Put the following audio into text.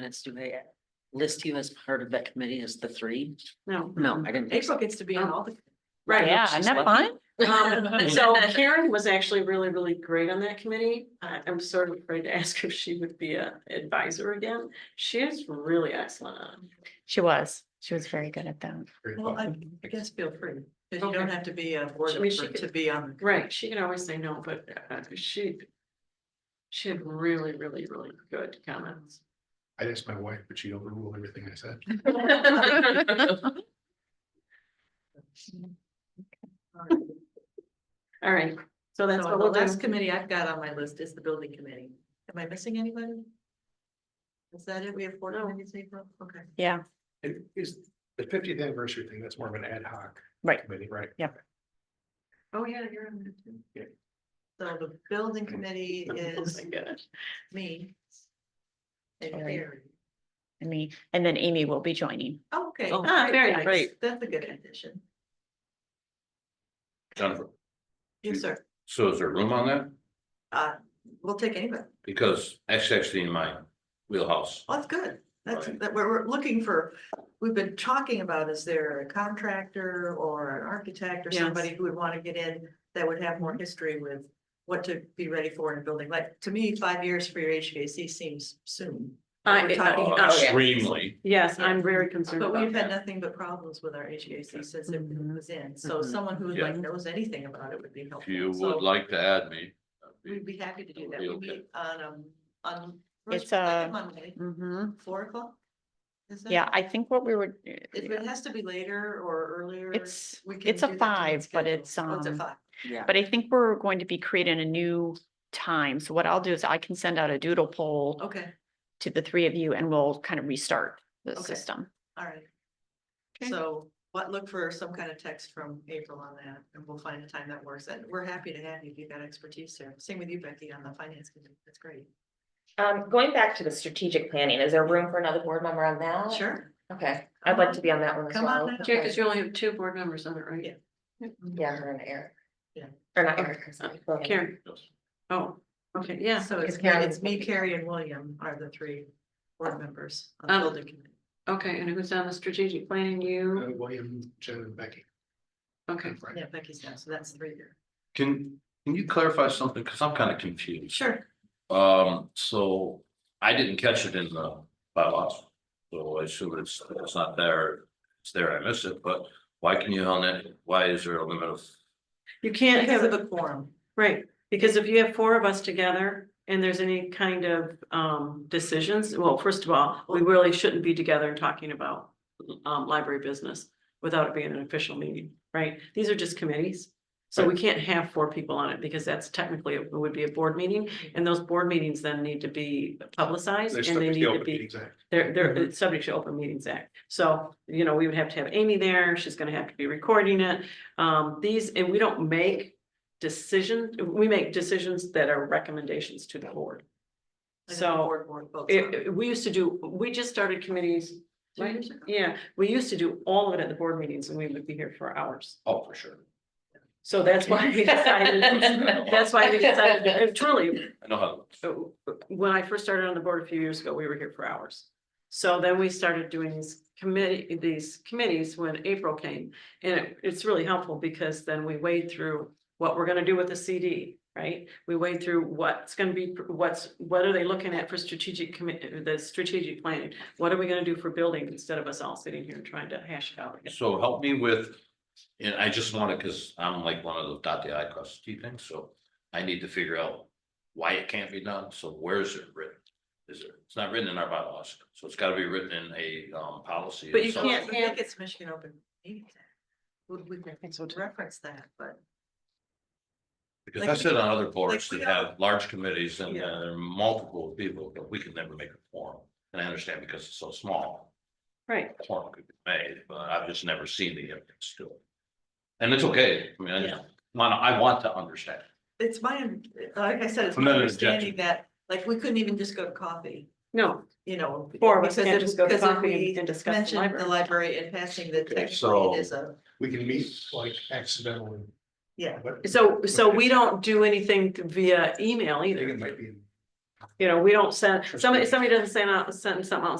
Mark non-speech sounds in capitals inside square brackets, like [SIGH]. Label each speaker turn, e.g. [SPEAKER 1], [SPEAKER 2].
[SPEAKER 1] minutes, do they list you as part of that committee as the three?
[SPEAKER 2] No,
[SPEAKER 1] No, I didn't think so.
[SPEAKER 2] April gets to be on all the.
[SPEAKER 1] Right,
[SPEAKER 3] Yeah,
[SPEAKER 1] she's
[SPEAKER 3] isn't that
[SPEAKER 1] lucky.
[SPEAKER 3] fun?
[SPEAKER 2] Um, so Karen was actually really, really great on that committee. I, I'm sort of afraid to [LAUGHS] ask if she would be a advisor again. She is really excellent on. it.
[SPEAKER 3] She was, she was very good at that.
[SPEAKER 4] Well, I I guess feel free, because you don't
[SPEAKER 2] Okay.
[SPEAKER 4] have to be a board
[SPEAKER 2] I mean, she
[SPEAKER 4] member to
[SPEAKER 2] could- [LAUGHS]
[SPEAKER 4] be on. the
[SPEAKER 2] Right, she can always say no, but uh, she. She had really, really, really good comments.
[SPEAKER 5] I asked my wife, but she overruled everything I said.
[SPEAKER 2] All right, so that's
[SPEAKER 4] So
[SPEAKER 2] what
[SPEAKER 4] the
[SPEAKER 2] we'll
[SPEAKER 4] last
[SPEAKER 2] do.
[SPEAKER 4] committee I've got on my list is the building committee. Am I missing anybody? Is that it? We have four
[SPEAKER 2] No.
[SPEAKER 4] committees, April? Okay.
[SPEAKER 3] Yeah,
[SPEAKER 5] It is the fiftieth anniversary thing, that's more of an ad hoc.
[SPEAKER 3] Right.
[SPEAKER 5] Committee, right?
[SPEAKER 4] Oh, yeah, you're on there too.
[SPEAKER 5] Yeah.
[SPEAKER 4] So the
[SPEAKER 2] [LAUGHS]
[SPEAKER 4] building committee
[SPEAKER 2] Oh
[SPEAKER 4] is
[SPEAKER 2] my gosh.
[SPEAKER 4] me. And
[SPEAKER 3] Sorry.
[SPEAKER 4] Carrie.
[SPEAKER 3] I mean, and then Amy will be joining.
[SPEAKER 4] Oh, Okay.
[SPEAKER 1] Oh,
[SPEAKER 4] Ah,
[SPEAKER 2] very
[SPEAKER 4] nice.
[SPEAKER 1] great.
[SPEAKER 4] That's a good addition.
[SPEAKER 6] Jennifer,
[SPEAKER 4] Yes, sir.
[SPEAKER 6] so is there room on that?
[SPEAKER 4] Uh, we'll take anybody.
[SPEAKER 6] Because that's actually in my wheelhouse.
[SPEAKER 4] Well, That's good. That's,
[SPEAKER 6] Right.
[SPEAKER 4] that we're, we're looking for, we've been talking about, is there a contractor or an architect or
[SPEAKER 2] Yes.
[SPEAKER 4] somebody who would want to get in? That would have more history with what to be ready for in a building. Like, to me, five years for your HVAC seems soon.
[SPEAKER 2] I-
[SPEAKER 4] We're
[SPEAKER 2] I-
[SPEAKER 4] talking
[SPEAKER 6] Uh,
[SPEAKER 2] oh, yeah.
[SPEAKER 6] Extremely,
[SPEAKER 2] Yes, I'm very concerned
[SPEAKER 4] But
[SPEAKER 2] about
[SPEAKER 4] we've had
[SPEAKER 2] that.
[SPEAKER 4] nothing but problems with our HVAC since it
[SPEAKER 1] Mhm.
[SPEAKER 4] was in. So
[SPEAKER 1] Mhm.
[SPEAKER 4] someone who like
[SPEAKER 6] Yeah.
[SPEAKER 4] knows anything about it would be
[SPEAKER 6] if you
[SPEAKER 4] helpful. So
[SPEAKER 6] would like to add me. that'd be-
[SPEAKER 4] We'd be happy to do that.
[SPEAKER 6] That
[SPEAKER 4] We
[SPEAKER 6] would be okay.
[SPEAKER 4] meet on, um, on.
[SPEAKER 3] It's,
[SPEAKER 4] first second
[SPEAKER 3] uh,
[SPEAKER 4] Monday,
[SPEAKER 3] Mhm.
[SPEAKER 4] Four o'clock? Is that
[SPEAKER 3] Yeah,
[SPEAKER 4] it?
[SPEAKER 3] I think what we were,
[SPEAKER 4] If it has to be later or earlier.
[SPEAKER 3] it's,
[SPEAKER 4] we can
[SPEAKER 3] it's a
[SPEAKER 4] do that to
[SPEAKER 3] five, but
[SPEAKER 4] schedule.
[SPEAKER 3] it's,
[SPEAKER 4] Oh, It's a
[SPEAKER 3] um,
[SPEAKER 4] five.
[SPEAKER 1] Yeah.
[SPEAKER 3] but I think we're going to be creating a new time. So what I'll do is I can send out a doodle poll
[SPEAKER 4] Okay,
[SPEAKER 3] to the three of you and we'll kind of restart the
[SPEAKER 4] Okay.
[SPEAKER 3] system.
[SPEAKER 4] all right.
[SPEAKER 3] Okay.
[SPEAKER 4] So what, look for some kind of text from April on that and we'll find a time that works. And we're happy to have you. if You've got expertise there. Same with you, Becky, on the finance committee. That's great.
[SPEAKER 7] Um, going back to the strategic planning, is there room for another board member on that?
[SPEAKER 4] Sure.
[SPEAKER 7] Okay, I'd like to be on that one as
[SPEAKER 4] Come on
[SPEAKER 7] well.
[SPEAKER 4] now.
[SPEAKER 2] Yeah, because you only have two board members on it, right?
[SPEAKER 4] Yeah.
[SPEAKER 7] Yeah, her and Eric.
[SPEAKER 4] Yeah.
[SPEAKER 7] Or not Eric. I'm sorry, William.
[SPEAKER 2] Karen. Oh, okay, yeah.
[SPEAKER 4] So it's,
[SPEAKER 7] Is Karen-
[SPEAKER 4] it's me, Carrie and William are the three board members on
[SPEAKER 2] Um,
[SPEAKER 4] the building committee.
[SPEAKER 2] Okay, and who's on the strategic planning?
[SPEAKER 5] Uh,
[SPEAKER 2] You?
[SPEAKER 5] William, Jen and Becky.
[SPEAKER 2] Okay.
[SPEAKER 5] Right.
[SPEAKER 4] Yeah, Becky's now, so that's three here.
[SPEAKER 6] Can, can you clarify something? Cause I'm kind of confused.
[SPEAKER 4] Sure.
[SPEAKER 6] Um, so I didn't catch it in the bylaws. So I assume it's, it's not there. It's there, I missed it, but why can you on it? Why is there a limit of?
[SPEAKER 2] You can't
[SPEAKER 4] Because
[SPEAKER 2] have
[SPEAKER 4] of
[SPEAKER 2] a
[SPEAKER 4] the quorum.
[SPEAKER 2] Right, because if you have four of us together and there's any kind of um decisions, well, first of all, we really shouldn't be together and talking about. Um, library business without it being an official meeting, right? These are just committees. So we can't have four people on it because that's technically, it would be a board meeting and those board meetings then need to be publicized
[SPEAKER 5] They're
[SPEAKER 2] and
[SPEAKER 5] stuck
[SPEAKER 2] they
[SPEAKER 5] with
[SPEAKER 2] need
[SPEAKER 5] the
[SPEAKER 2] to
[SPEAKER 5] open
[SPEAKER 2] be.
[SPEAKER 5] meetings act.
[SPEAKER 2] They're, they're
[SPEAKER 4] Mm-hmm.
[SPEAKER 2] it's subject to Open Meetings Act. So, you know, we would have to have Amy there. She's gonna have to be recording it. Um, these, and we don't make decision, we make decisions that are recommendations to the board.
[SPEAKER 4] And then the
[SPEAKER 2] So
[SPEAKER 4] board- board votes on
[SPEAKER 2] it,
[SPEAKER 4] it.
[SPEAKER 2] it- we used to do, we just started committees.
[SPEAKER 4] Two
[SPEAKER 2] right?
[SPEAKER 4] years ago.
[SPEAKER 2] Yeah, we used to do all of it at the board meetings and we would be here for hours.
[SPEAKER 6] Oh, for sure.
[SPEAKER 2] So that's why we
[SPEAKER 4] [LAUGHS]
[SPEAKER 2] decided, that's why we decided, and truly,
[SPEAKER 6] I know how. it works.
[SPEAKER 2] uh, when I first started on the board a few years ago, we were here for hours. So then we started doing these committee, these committees when April came. And it, it's really helpful because then we wade through what we're gonna do with the CD, right? We wade through what's gonna be, what's, what are they looking at for strategic commit, the strategic planning? What are we gonna do for building instead of us all sitting here and trying to hash it out? again?
[SPEAKER 6] So help me with, and I just wanna, cause I'm like one of those dot the i cross the t things, so I need to figure out. Why it can't be done, so where is it written? Is it, it's not written in our bylaws, so it's gotta be written in a um policy. of
[SPEAKER 2] But you
[SPEAKER 4] So
[SPEAKER 6] some-
[SPEAKER 4] I
[SPEAKER 2] can't
[SPEAKER 4] think
[SPEAKER 2] have-
[SPEAKER 4] it's Michigan Open Meetings Act. We, we can reference that, but
[SPEAKER 6] Because I sit on other boards
[SPEAKER 4] like we
[SPEAKER 6] that have large committees and
[SPEAKER 4] Yeah.
[SPEAKER 6] uh, there are multiple people, but we can never make a forum. And I understand because it's so small,
[SPEAKER 2] Right,
[SPEAKER 6] a forum could be made, but I've just never seen the evidence to it. And it's okay, I mean, I just, wanna- I want to understand.
[SPEAKER 4] it's my, un- like I said, it's
[SPEAKER 6] I'm
[SPEAKER 4] my
[SPEAKER 6] not an objection.
[SPEAKER 4] understanding that, like, we couldn't even just go to coffee,
[SPEAKER 2] no,
[SPEAKER 4] you know.
[SPEAKER 2] four of us
[SPEAKER 4] because
[SPEAKER 2] can't
[SPEAKER 4] if-
[SPEAKER 2] just go to
[SPEAKER 4] because if
[SPEAKER 2] coffee and-
[SPEAKER 4] we
[SPEAKER 2] and discuss the
[SPEAKER 4] mentioned
[SPEAKER 2] library.
[SPEAKER 4] The library and passing the
[SPEAKER 6] Okay,
[SPEAKER 4] technically
[SPEAKER 6] so-
[SPEAKER 4] it is a,
[SPEAKER 5] We can meet like accidentally,
[SPEAKER 4] yeah,
[SPEAKER 5] but.
[SPEAKER 2] so, so we don't do anything via email
[SPEAKER 5] I think
[SPEAKER 2] either.
[SPEAKER 5] it might be.
[SPEAKER 2] You know, we don't send, somebody, somebody doesn't send out, send something out, and